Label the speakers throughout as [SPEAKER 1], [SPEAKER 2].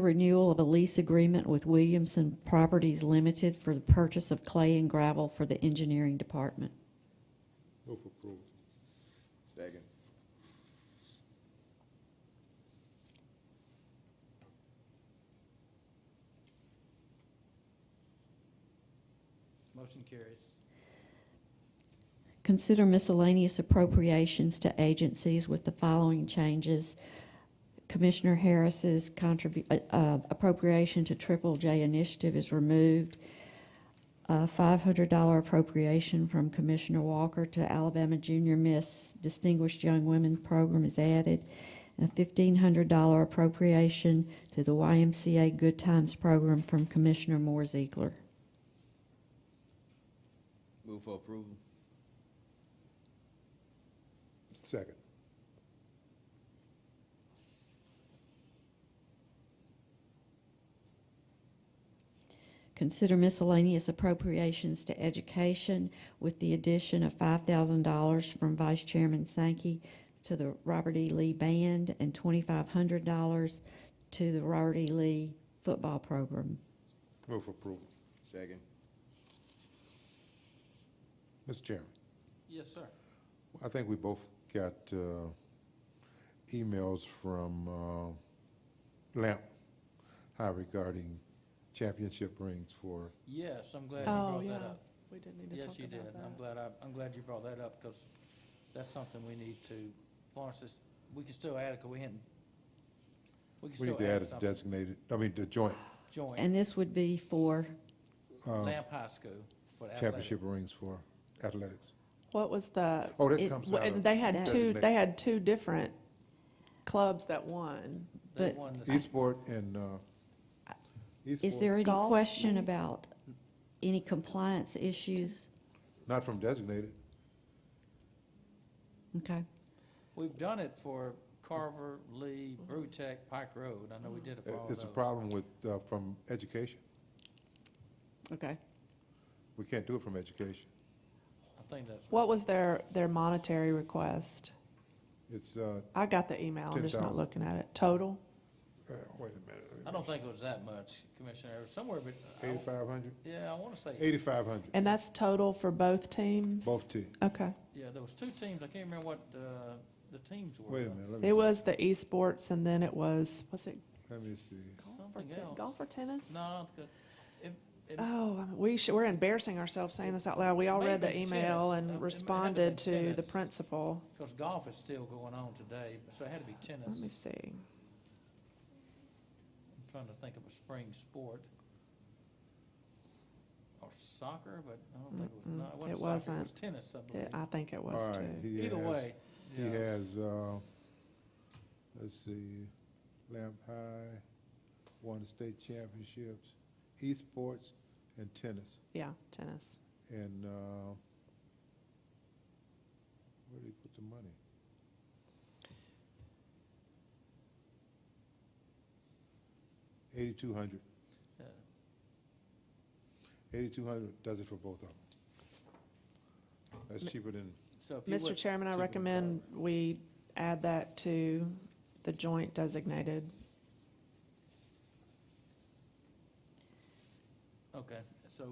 [SPEAKER 1] renewal of a lease agreement with Williamson Properties Limited for the purchase of clay and gravel for the engineering department.
[SPEAKER 2] Move for approval.
[SPEAKER 3] Second.
[SPEAKER 4] Motion carries.
[SPEAKER 1] Consider miscellaneous appropriations to agencies with the following changes. Commissioner Harris's contribu, uh, uh, appropriation to Triple J Initiative is removed. A five hundred dollar appropriation from Commissioner Walker to Alabama Junior Miss Distinguished Young Women Program is added. And a fifteen hundred dollar appropriation to the YMCA Good Times Program from Commissioner Moore Ziegler.
[SPEAKER 3] Move for approval.
[SPEAKER 2] Second.
[SPEAKER 1] Consider miscellaneous appropriations to education with the addition of five thousand dollars from Vice Chairman Sankey to the Robert E. Lee Band and twenty-five hundred dollars to the Robert E. Lee Football Program.
[SPEAKER 2] Move for approval.
[SPEAKER 3] Second.
[SPEAKER 2] Mr. Chairman,
[SPEAKER 4] Yes, sir.
[SPEAKER 2] I think we both got uh, emails from uh, Lamp High regarding championship rings for,
[SPEAKER 4] Yes, I'm glad you
[SPEAKER 5] Oh,
[SPEAKER 4] brought
[SPEAKER 5] yeah,
[SPEAKER 4] that up.
[SPEAKER 5] we did need to
[SPEAKER 4] Yes,
[SPEAKER 5] talk
[SPEAKER 4] you did.
[SPEAKER 5] about
[SPEAKER 4] I'm
[SPEAKER 5] that.
[SPEAKER 4] glad I, I'm glad you brought that up because that's something we need to, Florence, is- we can still add it, 'cause we hadn't. We can
[SPEAKER 2] we need
[SPEAKER 4] still
[SPEAKER 2] to add
[SPEAKER 4] add
[SPEAKER 2] it
[SPEAKER 4] something.
[SPEAKER 2] designated, I mean, the joint
[SPEAKER 4] Joint
[SPEAKER 1] And this would be for,
[SPEAKER 2] uh,
[SPEAKER 4] Lamp High School for the athletic.
[SPEAKER 2] championship rings for athletics.
[SPEAKER 5] What was the,
[SPEAKER 2] Oh,
[SPEAKER 1] It-
[SPEAKER 2] that comes out
[SPEAKER 5] and
[SPEAKER 2] of
[SPEAKER 5] they had
[SPEAKER 1] That-
[SPEAKER 5] two, they had two different clubs that won.
[SPEAKER 4] They
[SPEAKER 1] but-
[SPEAKER 4] won the-
[SPEAKER 2] Esport and, uh,
[SPEAKER 1] is
[SPEAKER 2] Esport,
[SPEAKER 1] there any
[SPEAKER 5] Golf,
[SPEAKER 1] question
[SPEAKER 5] maybe?
[SPEAKER 1] about any compliance issues?
[SPEAKER 2] not from designated.
[SPEAKER 1] Okay,
[SPEAKER 4] We've done it for Carver, Lee, Brewtech, Pike Road. I know we did it for all
[SPEAKER 2] It's a
[SPEAKER 4] those.
[SPEAKER 2] problem with, uh, from education.
[SPEAKER 5] Okay.
[SPEAKER 2] We can't do it from education.
[SPEAKER 4] I think that's.
[SPEAKER 5] What was their, their monetary request?
[SPEAKER 2] It's, uh,
[SPEAKER 5] I got the email, I'm just not
[SPEAKER 2] 10,000.
[SPEAKER 5] looking at it. Total?
[SPEAKER 2] uh, wait a minute.
[SPEAKER 4] I don't think it was that much, Commissioner. It was somewhere, but,
[SPEAKER 2] Eighty-five hundred?
[SPEAKER 4] yeah, I want to say,
[SPEAKER 2] Eighty-five hundred,
[SPEAKER 5] And that's total for both teams?
[SPEAKER 2] both teams.
[SPEAKER 5] Okay.
[SPEAKER 4] yeah, there was two teams. I can't remember what, uh, the teams were.
[SPEAKER 2] Wait a minute, let me,
[SPEAKER 5] It was the esports and then it was, was it
[SPEAKER 2] let me see.
[SPEAKER 5] golf or,
[SPEAKER 4] Something
[SPEAKER 5] ten-
[SPEAKER 4] else.
[SPEAKER 5] golf or tennis?
[SPEAKER 4] No, it's good. It- it-
[SPEAKER 5] Oh, I mean, we should, we're embarrassing ourselves saying this out loud. We all
[SPEAKER 4] It may
[SPEAKER 5] read
[SPEAKER 4] have
[SPEAKER 5] the
[SPEAKER 4] been tennis. Um, it
[SPEAKER 5] email
[SPEAKER 4] may
[SPEAKER 5] and
[SPEAKER 4] have
[SPEAKER 5] responded
[SPEAKER 4] been
[SPEAKER 5] to the
[SPEAKER 4] tennis.
[SPEAKER 5] principal.
[SPEAKER 4] Because golf is still going on today, so it had to be tennis.
[SPEAKER 5] Let me
[SPEAKER 4] I'm
[SPEAKER 5] see.
[SPEAKER 4] trying to think of a spring sport. Or soccer, but I don't think it was,
[SPEAKER 5] Mm-mm,
[SPEAKER 4] no, it wasn't soccer,
[SPEAKER 5] it
[SPEAKER 4] it was
[SPEAKER 5] wasn't.
[SPEAKER 4] tennis, I
[SPEAKER 5] It-
[SPEAKER 4] believe.
[SPEAKER 5] I think it
[SPEAKER 2] All
[SPEAKER 5] was
[SPEAKER 2] right,
[SPEAKER 5] too.
[SPEAKER 2] he
[SPEAKER 4] Either
[SPEAKER 2] has-
[SPEAKER 4] way,
[SPEAKER 2] He
[SPEAKER 4] yeah.
[SPEAKER 2] has, uh, let's see, Lamp High, won the state championships, esports and tennis.
[SPEAKER 5] Yeah, tennis.
[SPEAKER 2] And, uh, where did he put the money? Eighty-two hundred.
[SPEAKER 4] Yeah.
[SPEAKER 2] Eighty-two hundred does it for both of them. That's cheaper than,
[SPEAKER 4] So if you
[SPEAKER 5] Mr.
[SPEAKER 4] would-
[SPEAKER 5] Chairman, I
[SPEAKER 2] keep it
[SPEAKER 5] recommend we add that to the joint designated.
[SPEAKER 4] Okay, so,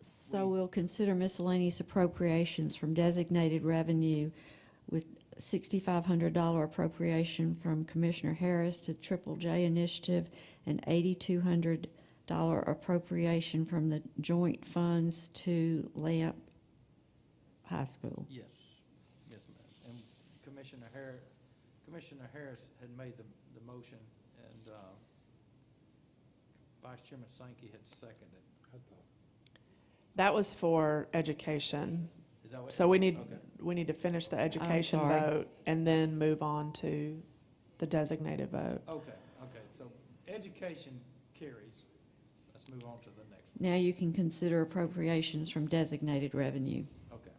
[SPEAKER 1] so we'll consider miscellaneous appropriations from designated revenue with sixty-five hundred dollar appropriation from Commissioner Harris to Triple J Initiative and eighty-two hundred dollar appropriation from the joint funds to Lamp High School.
[SPEAKER 4] yes, yes, ma'am. And Commissioner Harris, Commissioner Harris had made the, the motion, and, uh, Vice Chairman Sankey had seconded.
[SPEAKER 5] That was for education.
[SPEAKER 4] Is that what-
[SPEAKER 5] So we need,
[SPEAKER 4] Okay.
[SPEAKER 5] we need to finish the education
[SPEAKER 1] sorry.
[SPEAKER 5] vote and then move on to the designated vote.
[SPEAKER 4] Okay, okay, so education carries. Let's move on to the next
[SPEAKER 1] Now you can consider appropriations from designated revenue.
[SPEAKER 4] one. Okay.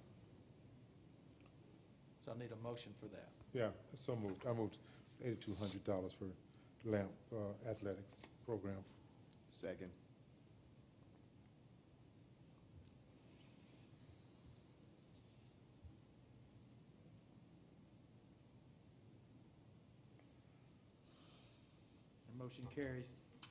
[SPEAKER 4] So I need a motion for that.
[SPEAKER 2] yeah, so moved, I moved eighty-two hundred dollars for Lamp uh, Athletics Program.
[SPEAKER 3] Second.
[SPEAKER 4] The motion carries.